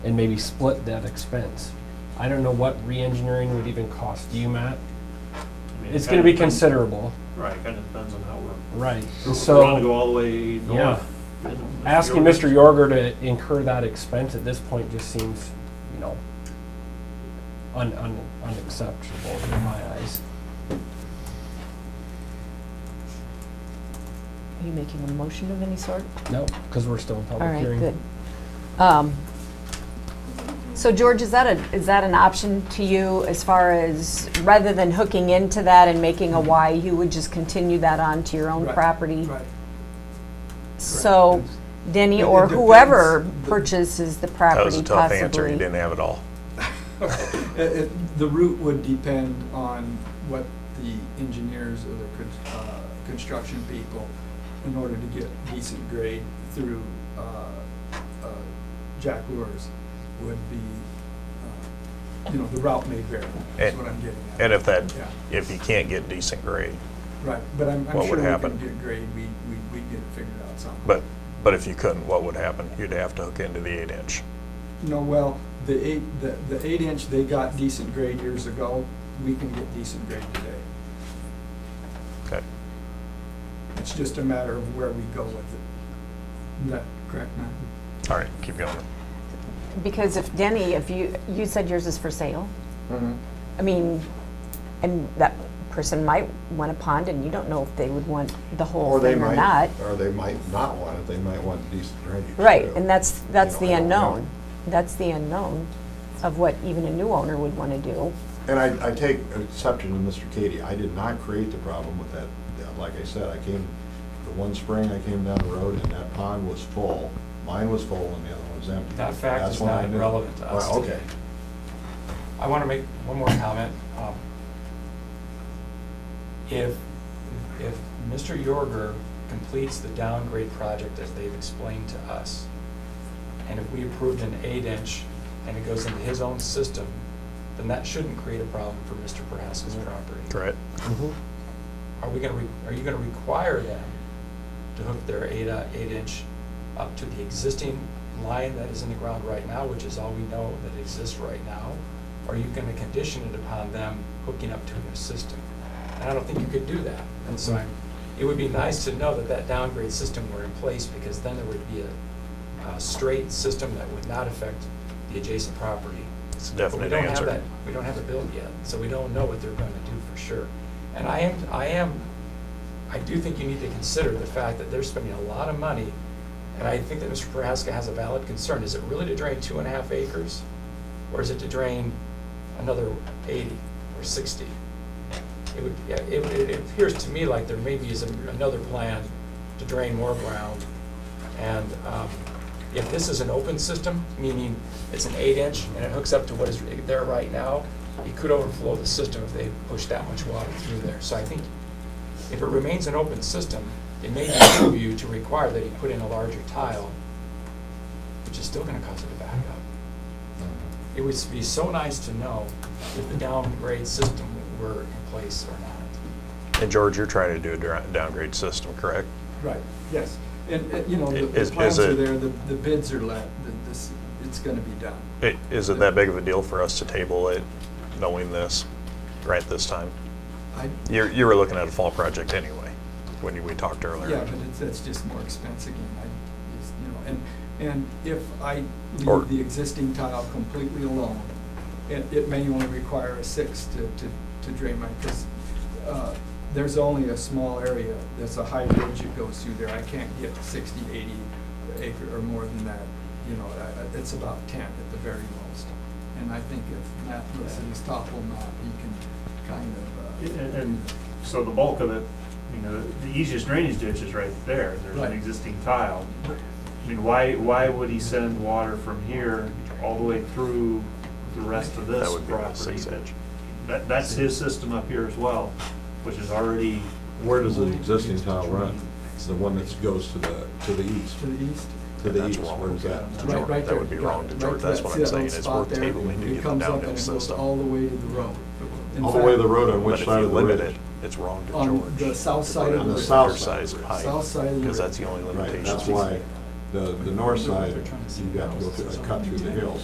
and maybe split that expense. I don't know what re-engineering would even cost you, Matt. I mean, It's it gonna kinda be depends- considerable, Right, it kinda depends on how we're, right? And if we wanna go so, all the way north. you know, Mr. asking Jordan- Mr. Yorger to incur that expense at this point just seems, you know, un, un, unacceptable in my eyes. Are you making a motion of any sort? No, because we're still in All public right, hearing. good. Um, So George, is that a, is that an option to you as far as, rather than hooking into that and making a Y, you would just continue that on to your own Right, property? Right. So Denny It- it or whoever depends. purchases the That was property a possibly? tough answer. You didn't have it all. It- it- Uh, The route would depend on what the engineers or the con- uh, construction people, in order to get decent grade through uh, uh, Jack Lures, would be, uh, you know, the route may vary, is And- what I'm getting at. And if that, Yeah. if you can't get decent grade, Right, but I'm I'm What would sure we happen? can get grade, we- we- we'd get it figured out somehow. but, but if you couldn't, what would happen? You'd have to hook into the eight inch. No, well, the eight, the, the eight inch, they got decent grade years ago, we can get decent grade today. Okay. It's just a matter of where we go with it. Is that correct, Matt? All right, keep going. Because if Denny, if you, you said yours is for sale? Mm-hmm. I mean, and that person might want a pond and you don't know if they would want the whole Or they thing or might, not. Or they might not want it, they might want decent drainage. Right, too. and that's, that's You the know, I don't know. unknown. That's the unknown of what even a new owner would want to do. And I, I take exception to Mr. Katie, I did not create the problem with that, that- like I said, I came, the one spring I came down the road and that pond was full, mine was full and the other one was empty. That fact That's is when I not knew. relevant to us Well, today. okay, I want to make one more comment. Um, If, if Mr. Yorger completes the downgrade project as they've explained to us, and if we approved an eight-inch and it goes into his own system, then that shouldn't create a problem for Mr. Prohaska's property. Correct. Mhm. Are we going to, are you going to require them to hook their eight, uh, eight-inch up to the existing line that is in the ground right now, which is all we know that exists right now? Are you going to condition it upon them hooking up to a new system? And I don't think you could do that. And so I'm- Mm-hmm. it would be nice to know that that downgrade system were in place, because then there would be a, a straight system that would not affect the adjacent property. It's a But we definite don't have answer. that, we don't have it built yet, so we don't know what they're gonna do for sure. And I am, I am, I do think you need to consider the fact that they're spending a lot of money, and I think that Mr. Prohaska has a valid concern, is it really to drain two and a half acres? Or is it to drain another eighty or sixty? It would, yeah, it, it appears to me like there maybe is another plan to drain more ground. And, um, if this is an open system, meaning it's an eight inch and it hooks up to what is there right now, it could overflow the system if they push that much water through there. So I think if it remains an open system, it may behoove you to require that he put in a larger tile, which is still gonna cause it to back up. It would be so nice to know if the downgrade system were in place or not. And George, you're trying to do a dra- downgrade system, correct? Right, yes. And, uh, you know, the- Is- the is plans are it- there, the the bids are let, the- this, it's gonna be done. I- Is it that big of a deal for us to table it, knowing this, right this time? I, You're, you were looking at a fall project anyway, when you- we talked earlier. yeah, but it's, that's just more expense again, I, just, you know, and, and if I Or- leave the existing tile completely alone, it, it may only require a six to, to, to drain my, because, uh, there's only a small area, there's a high ridge that goes through there, I can't get sixty, eighty acre or more than that, you know, I- I- it's about ten at the very most. And I think if Matt looks at his topo map, he can kind of, uh, And, and so the bulk of it, you know, the easiest drainage ditch is right there, there's Right. an existing tile. I mean, why, why would he send water from here all the way through the rest of That this would be about property? six inch. That, that's his system up here as well, which is already. Where does the existing tile run? It's the one that goes to the, to the east, to the east. to the That's east, wrong. where is that? To Right, George, right That would be there. wrong to Right, George. right That's to what that I'm saying, little is we're spot there. tabling It to get the comes up downhill and it goes system. All the way to the road. In All the way to fact, the road, on But which if side you of the limit ridge? it, it's wrong to On George. the south to side put of in the the ridge. south side South pipe, South side of the because ridge. that's the only Right, limitation. that's why the, the north side, you've got to go through, cut through the hills.